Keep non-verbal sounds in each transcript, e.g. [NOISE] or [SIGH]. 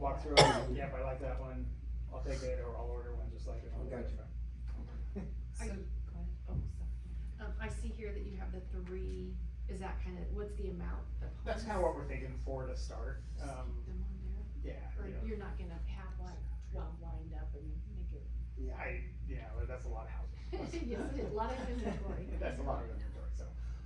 walk through it, and, yep, I like that one, I'll take it, or I'll order one just like it. Gotcha. So, I- go ahead. Oh, sorry. Um, I see here that you have the three, is that kind of, what's the amount of homes? That's kind of what we're thinking for to start, Just um, keep them on there, yeah, or you know, you're not gonna have like twelve lined up and make it. yeah, I, yeah, well, that's a lot of [LAUGHS] houses. Yes, it is, a lot of inventory. [LAUGHS] That's a lot of inventory, so,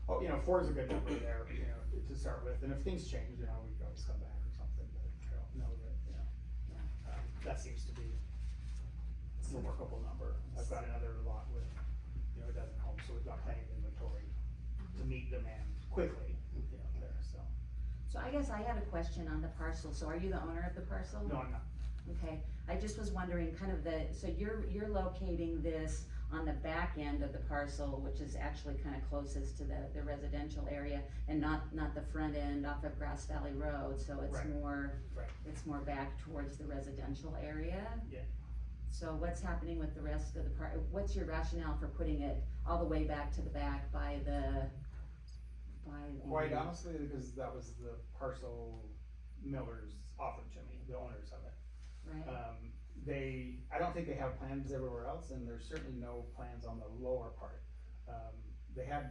oh, you know, four is a good number there, you know, to start with, and if things change, you know, we can always come back or something, but I don't know that, you know. um, That seems to be a workable number. I've got another lot with, you know, a dozen homes, so we've got plenty of inventory to meet demand quickly, you know, there, so. So I guess I had a question on the parcel, so are you the owner of the parcel? No, I'm not, Okay, I just was wondering, kind of the, so you're, you're locating this on the back end of the parcel, which is actually kind of closest to the, the residential area, and not, not the front end off of Grass Valley Road, so it's Right. more, Right. it's more back towards the residential area? Yeah. So what's happening with the rest of the part, what's your rationale for putting it all the way back to the back by the, by the? quite honestly, because that was the parcel Miller's offered to me, the owners of it. Right? Um, they, I don't think they have plans everywhere else, and there's certainly no plans on the lower part. Um, they had,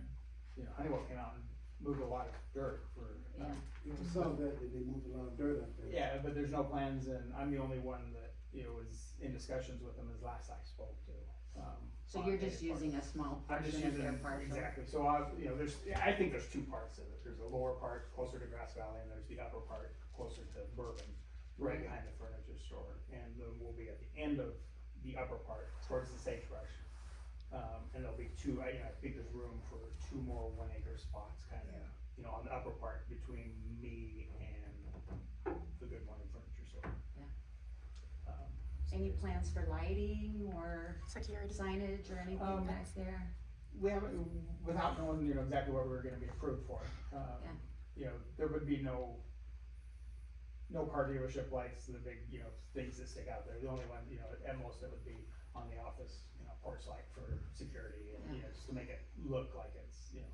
you know, Honeywell came out and moved a lot of dirt for, uh, You know, some of that, they they moved a lot of dirt up there. yeah, but there's no plans, and I'm the only one that, you know, was in discussions with them as last I spoke to. um, So on you're their just part. using a small I'm just portion of using, their parcel? exactly, so I, you know, there's, yeah, I think there's two parts of it, there's the lower part closer to Grass Valley, and there's the upper part closer to Bourbon, right behind the furniture store, and then we'll be at the end of the upper part, towards the sagebrush. Um, and there'll be two, I, I think there's room for two more one acre spots, kinda, you know, on the upper part between me and the Good Morning Furniture Store. Yeah. Um, Any plans for lighting or Security. signage or anything Um, back there? we haven't, without knowing, you know, exactly what we were gonna be approved for, um, Yeah. you know, there would be no, no car dealership lights, the big, you know, things that stick out there, the only one, you know, at most it would be on the office, you know, porch light for security, and, you know, just to make it look like it's, you know,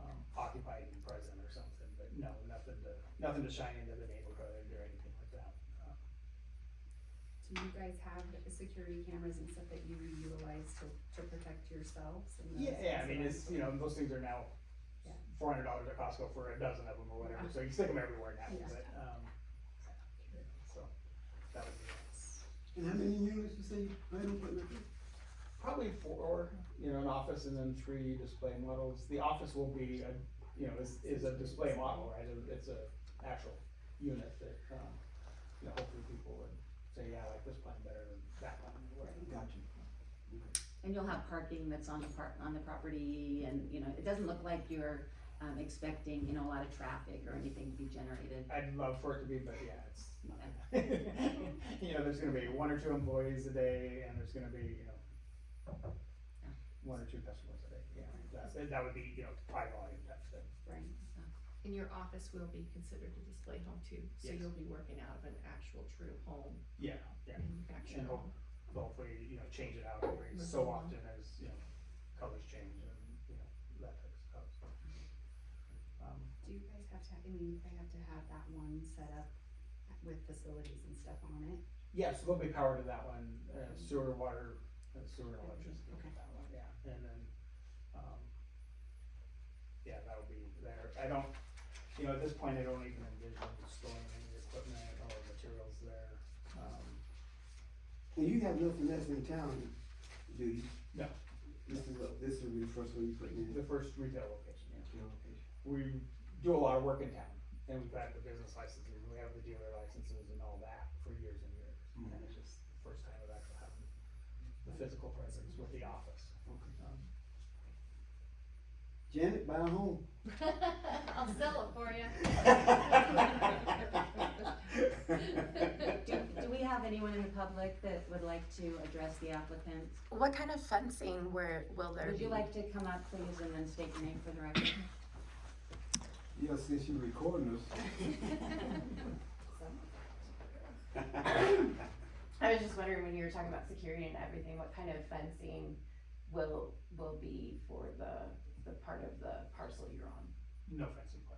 um, occupied and present or something, but no, nothing to, nothing to shine into the neighborhood or anything like that. Uh, Do you guys have security cameras and stuff that you utilize to, to protect yourselves? and those Yeah, yeah, I mean, things? it's, you know, those things are now Yeah. four hundred dollars at Costco for a dozen of them or whatever, so you stick them everywhere now, Yeah. but, um, yeah, so, that would be, And how many units you say you plan on putting up there? probably four, you know, an office and then three display models. The office will be, a you know, is, is a display model, right, it's a actual unit that, um, you know, hopefully people would say, yeah, I like this plan better than that plan, or whatever. Gotcha. And you'll have parking that's on the par, on the property and, you know, it doesn't look like you're, um, expecting, you know, a lot of traffic or anything to be generated. I'd love for it to be, but yeah, it's [LAUGHS] not. You know, there's gonna be one or two employees a day and there's gonna be, you know, one or two customers a day, yeah, that's, and that would be, you know, high volume type thing. Right. And your office will be considered a display home too, so Yes. you'll be working out of an actual true home, Yeah, yeah, manufactured And hope- home. hopefully, you know, change it out every so often as, you know, colors change and, you know, that type of stuff. Um, Do you guys have to, I mean, they have to have that one set up with facilities and stuff on it? Yeah, so there'll be power to that one, uh, sewer, water, uh, sewer and electricity to Okay. that one, yeah, and then, um, yeah, that'll be there, I don't, you know, at this point, I don't even envision storing any equipment or materials there, um, And you have nothing else in town, do you? No. This is, a- this will be the first one you put in. the first retail location, yeah. Yeah, okay. we do a lot of work in town, and we've had the business licenses, we have the dealer licenses and all that for years and years. And it's just the first time of actually having the physical presence with the office. Okay. Um, Janet, buy a home. I'll sell it [LAUGHS] for you. Do, do we have anyone in the public that would like to address the applicant? What kind of fencing where will there Would be? [LAUGHS] you like to come up, please, and then state your name for the record? Yeah, since you recording us. [LAUGHS] [LAUGHS] [LAUGHS] [LAUGHS] I was just wondering when you were talking about security and everything, what kind of fencing will, will be for the, the part of the parcel you're on? No fencing.